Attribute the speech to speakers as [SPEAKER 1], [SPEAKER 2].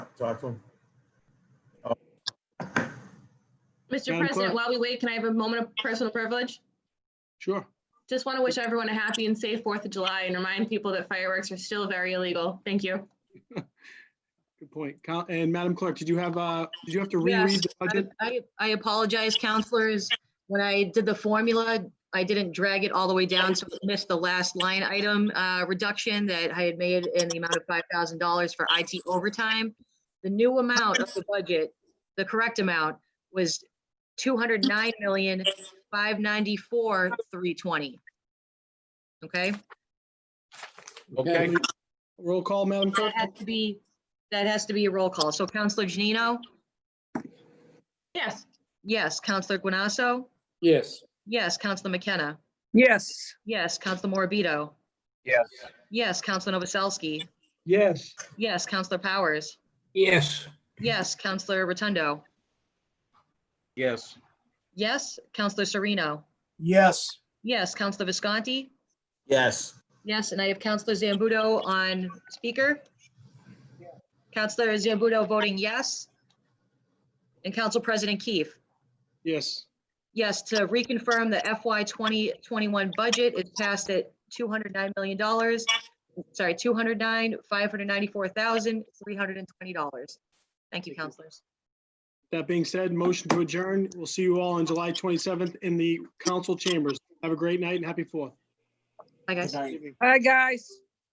[SPEAKER 1] talk to him?
[SPEAKER 2] Mr.
[SPEAKER 3] Madam
[SPEAKER 2] President,
[SPEAKER 3] Clerk.
[SPEAKER 2] while we wait, can I have a moment of personal privilege?
[SPEAKER 3] Sure.
[SPEAKER 2] Just want to wish everyone a happy and safe Fourth of July and remind people that fireworks are still very illegal. Thank you.
[SPEAKER 3] Good point. Coun- And Madam Clerk, did you have, uh, did you have to
[SPEAKER 4] Yes.
[SPEAKER 3] reread the budget?
[SPEAKER 4] I, I apologize, counselors. When I did the formula, I didn't drag it all the way down, so I missed the last line item uh, reduction that I had made in the amount of $5,000 for IT overtime. The new amount of the budget, the correct amount, was 209,594,320. Okay?
[SPEAKER 3] Okay. Roll call, Madam Clerk?
[SPEAKER 4] That has to be, that has to be a roll call. So Counselor Janino?
[SPEAKER 2] Yes,
[SPEAKER 4] Yes. Counselor Guanasso?
[SPEAKER 5] Yes.
[SPEAKER 4] Yes. Counselor McKenna?
[SPEAKER 6] Yes,
[SPEAKER 4] Yes, Counselor Morabito.
[SPEAKER 5] Yes.
[SPEAKER 4] Yes, Counselor Novoselsky.
[SPEAKER 3] Yes.
[SPEAKER 4] Yes, Counselor Powers.
[SPEAKER 5] Yes.
[SPEAKER 4] Yes, Counselor Rotundo.
[SPEAKER 5] Yes.
[SPEAKER 4] Yes, Counselor Sereno.
[SPEAKER 5] Yes.
[SPEAKER 4] Yes, Counselor Visconti.
[SPEAKER 1] Yes.
[SPEAKER 4] Yes, and I have Counselor Zambuto on speaker. Counselor Zambuto voting yes. And Council President Keefe.
[SPEAKER 3] Yes.
[SPEAKER 4] Yes, to reconfirm the FY 2021 budget is passed at $209 million. Sorry, 209, $594,320. Thank you, counselors.
[SPEAKER 3] That being said, motion to adjourn. We'll see you all on July 27th in the council chambers. Have a great night and happy Fourth.
[SPEAKER 4] Bye, guys.
[SPEAKER 5] Good night.
[SPEAKER 6] hi, guys.